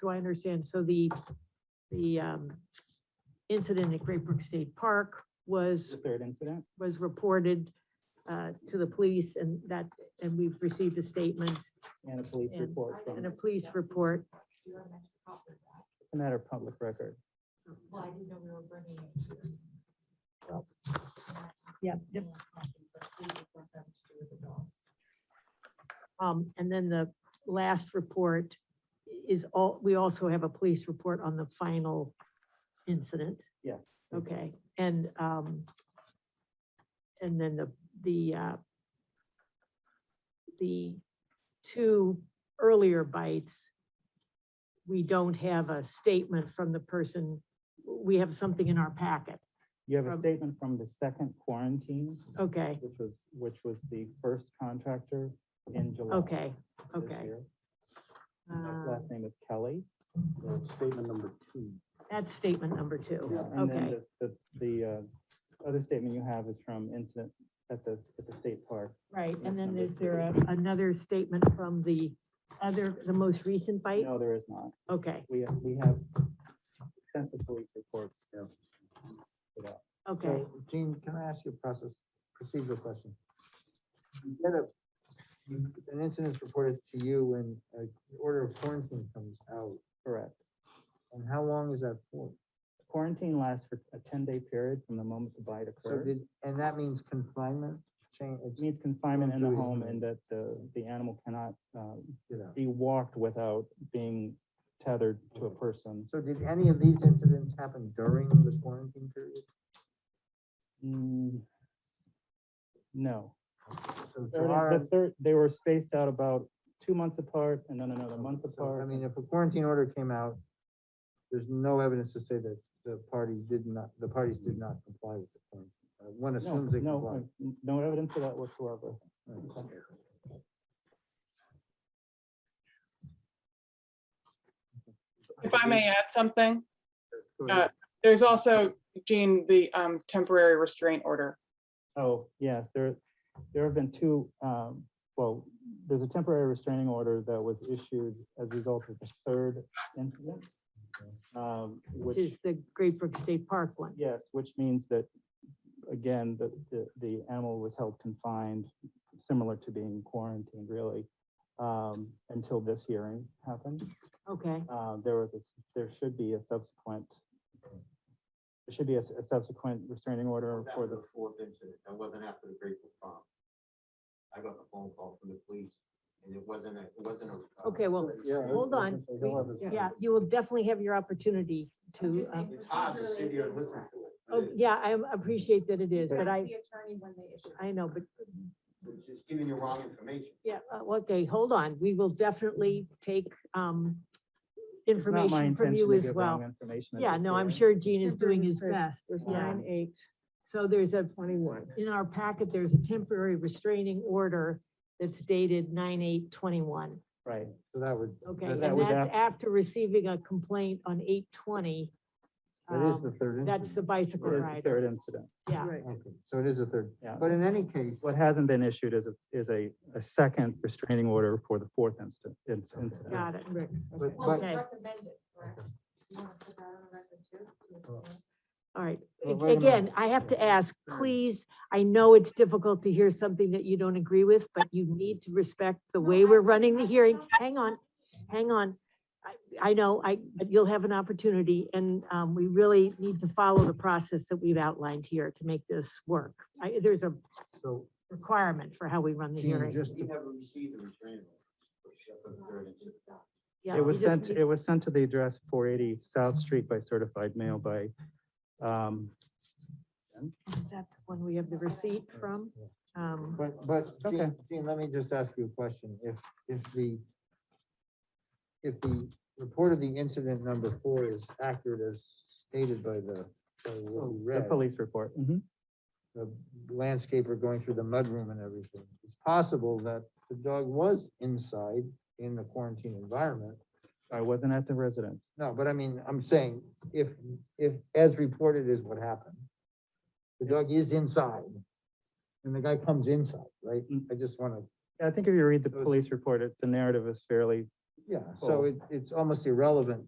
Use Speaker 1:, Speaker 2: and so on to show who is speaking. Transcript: Speaker 1: so I understand, so the, the um, incident at Great Brook State Park was,
Speaker 2: The third incident?
Speaker 1: was reported uh, to the police and that, and we've received a statement
Speaker 2: And a police
Speaker 1: And-
Speaker 2: report from,
Speaker 1: and a police report.
Speaker 2: it's a matter of public record.
Speaker 3: Well, I didn't know we were bringing it here.
Speaker 1: Yep.
Speaker 3: Yeah, but please report them to the dog.
Speaker 1: Um, and then the last report is all, we also have a police report on the final incident,
Speaker 2: Yes. Mm-hmm.
Speaker 1: okay? And, um, and then the, the, uh, the two earlier bites, we don't have a statement from the person, we have something in our packet,
Speaker 2: You have a
Speaker 1: From-
Speaker 2: statement from the second quarantine,
Speaker 1: okay,
Speaker 2: which was, which was the first contractor in July.
Speaker 1: okay,
Speaker 2: this
Speaker 1: okay.
Speaker 2: year. His
Speaker 1: Uh,
Speaker 2: Last name is Kelly.
Speaker 4: Statement number two.
Speaker 1: That's statement number two,
Speaker 2: And
Speaker 1: okay.
Speaker 2: then the, the, the uh, other statement you have is from incident at the, at the state park.
Speaker 1: Right, and
Speaker 2: That's
Speaker 1: then
Speaker 2: number
Speaker 1: is there a- another statement from the other, the most recent bite?
Speaker 2: No, there is not.
Speaker 1: Okay,
Speaker 2: We, have- we have extensive police reports.
Speaker 4: Yeah.
Speaker 2: Yeah.
Speaker 1: okay,
Speaker 4: Gene, can I ask you a process, procedural question? You get a- you- An incident's reported to you when an order of quarantine comes out,
Speaker 2: Correct.
Speaker 4: and how long is that for?
Speaker 2: Quarantine lasts for a ten-day period from the moment the bite
Speaker 4: So
Speaker 2: occurs.
Speaker 4: did, and that means confinement, change,
Speaker 2: It means confinement in the
Speaker 4: Injury.
Speaker 2: home and that the, the animal cannot um,
Speaker 4: you know.
Speaker 2: be walked without being tethered to a person.
Speaker 4: So did any of these incidents happen during the quarantine period?
Speaker 2: Mm, No.
Speaker 4: So
Speaker 2: They're not-
Speaker 4: July,
Speaker 2: The third, they were spaced out about two months apart and then another month
Speaker 4: so, I
Speaker 2: apart.
Speaker 4: mean, if a quarantine order came out, there's no evidence to say that the party did not, the parties did not comply with the quarantine. Uh, One
Speaker 2: No,
Speaker 4: assumes they complied.
Speaker 2: no, uh, no evidence of that whatsoever.
Speaker 4: Right.
Speaker 5: If I may add something,
Speaker 4: Go
Speaker 5: uh,
Speaker 4: ahead.
Speaker 5: there's also, Jean, the um, temporary restraint order.
Speaker 2: Oh, yes, there, there have been two, um, well, there's a temporary restraining order that was issued as a result of the third incident. um,
Speaker 1: which is the Great Brook State Park one.
Speaker 2: Yes, which means that, again, the, the, the animal was held confined, similar to being quarantined, really, um, until this hearing happened.
Speaker 1: Okay,
Speaker 2: Uh, there was, a there should be a subsequent, there should be a, s- a subsequent restraining order
Speaker 6: That
Speaker 2: for
Speaker 6: was
Speaker 2: the,
Speaker 6: the fourth incident. That wasn't after the Grateful Prom. I got the phone call from the police and it wasn't, a- it wasn't a.
Speaker 1: okay, well, hold on. We- Yeah, you will definitely have your opportunity to, um,
Speaker 6: It's hard to sit here and listen to it. but
Speaker 1: oh,
Speaker 6: it-
Speaker 1: yeah, I appreciate that it is, but I,
Speaker 3: The attorney when they issue.
Speaker 1: I know, but,
Speaker 6: It's just giving you wrong information.
Speaker 1: yeah, uh, okay, hold on. We will definitely take um,
Speaker 2: It's not my
Speaker 1: information from
Speaker 2: intention
Speaker 1: you
Speaker 2: to
Speaker 1: as
Speaker 2: give
Speaker 1: well.
Speaker 2: wrong information at
Speaker 1: Yeah,
Speaker 2: this
Speaker 1: no, I'm
Speaker 2: hearing.
Speaker 1: sure Gene is doing
Speaker 7: Temporary
Speaker 1: his
Speaker 7: restraint.
Speaker 1: best.
Speaker 7: There's
Speaker 1: Yeah.
Speaker 7: nine, eight,
Speaker 1: So there's a
Speaker 7: twenty-one.
Speaker 1: in our packet, there's a temporary restraining order that's dated nine eight twenty-one.
Speaker 2: Right,
Speaker 4: So that would,
Speaker 1: Okay,
Speaker 2: That-
Speaker 1: and
Speaker 2: that was
Speaker 1: that's
Speaker 2: af-
Speaker 1: after receiving a complaint on eight twenty.
Speaker 4: that is the third
Speaker 1: um, That's
Speaker 4: incident.
Speaker 1: the bicycle
Speaker 2: it is the
Speaker 1: rider,
Speaker 2: third incident.
Speaker 1: yeah.
Speaker 7: Right.
Speaker 4: Okay, So it is the third.
Speaker 2: Yeah.
Speaker 4: But in any case,
Speaker 2: What hasn't been issued is, a is a, a second restraining order for the fourth instant, incident.
Speaker 1: Got it.
Speaker 7: Rick,
Speaker 4: but,
Speaker 3: Well,
Speaker 4: but
Speaker 3: it's
Speaker 1: Okay.
Speaker 3: recommended, correct? You want to put that on the record too?
Speaker 1: All right.
Speaker 4: Well,
Speaker 1: Ag-
Speaker 4: wait a minute.
Speaker 1: Again, I have to ask, please, I know it's difficult to hear something that you don't agree with, but you need to respect the way we're running the hearing. Hang on, hang on. I, I know, I, but you'll have an opportunity and, um, we really need to follow the process that we've outlined here to make this work. I, there's a
Speaker 4: so,
Speaker 1: requirement for how we run the
Speaker 4: Gene,
Speaker 1: hearing.
Speaker 4: just,
Speaker 6: We haven't received the restraining order. except for the third incident.
Speaker 1: Yeah,
Speaker 2: It
Speaker 1: we
Speaker 2: was
Speaker 1: just
Speaker 2: sent,
Speaker 1: need-
Speaker 2: it was sent to the address four eighty South Street by certified mail by, um,
Speaker 1: Is that the one we have the receipt from? Um,
Speaker 4: but, but,
Speaker 2: Okay.
Speaker 4: Gene, Gene, let me just ask you a question. If, if the, if the report of the incident number four is accurate as stated by the, by what we
Speaker 2: Oh, the
Speaker 4: read,
Speaker 2: police report. Mhm.
Speaker 4: the landscaper going through the mudroom and everything. It's possible that the dog was inside in the quarantine environment.
Speaker 2: I wasn't at the residence.
Speaker 4: No, but I mean, I'm saying if, if, as reported is what happened, the dog is inside and the guy comes inside, right?
Speaker 2: Mm.
Speaker 4: I just want to,
Speaker 2: I think if you read the
Speaker 4: Those-
Speaker 2: police report, it, the narrative is fairly
Speaker 4: Yeah, so it, it's almost irrelevant